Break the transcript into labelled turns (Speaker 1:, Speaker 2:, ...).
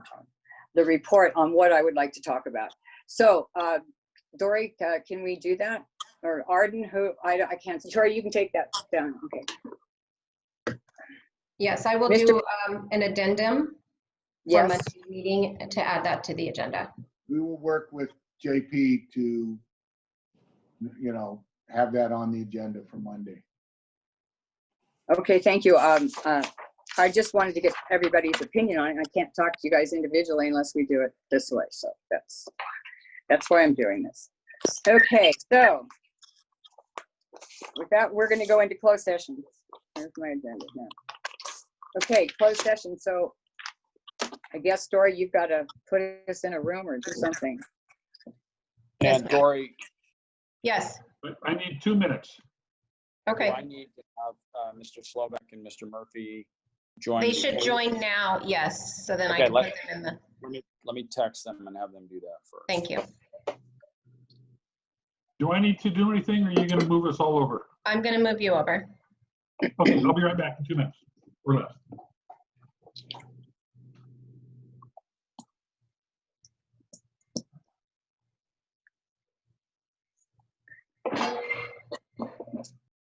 Speaker 1: the report on what I would like to talk about. So, uh, Dory, uh, can we do that? Or Arden, who, I, don't- I can't, Dory, you can take that down, okay.
Speaker 2: Yes, I will
Speaker 1: Mr.
Speaker 2: do um, an addendum for
Speaker 1: Yes,
Speaker 2: Monday's meeting to add that to the agenda.
Speaker 3: we will work with JP to, you know, have that on the agenda for Monday.
Speaker 1: okay, thank you. Um, uh, I just wanted to get everybody's opinion on it. I can't talk to you guys individually unless we do it this way, so that's, that's why I'm doing this. Okay, so with that, we're gonna go into closed session. There's my agenda now. Okay, closed session, so I guess, Dory, you've got to put us in a room or do something.
Speaker 2: Yes,
Speaker 4: And Dory,
Speaker 2: Yes,
Speaker 5: But I need two minutes.
Speaker 2: okay.
Speaker 4: I need to have uh, Mr. Slovak and Mr. Murphy join.
Speaker 2: They
Speaker 4: me.
Speaker 2: should join now, yes, so then I
Speaker 4: Okay,
Speaker 2: can put
Speaker 4: let-
Speaker 2: them in the,
Speaker 4: Let me- let me text them and have them do that first.
Speaker 2: thank you.
Speaker 5: Do I need to do anything or are you going to move us all over?
Speaker 2: I'm going to move you over.
Speaker 5: Okay, I'll be right back in two minutes or less.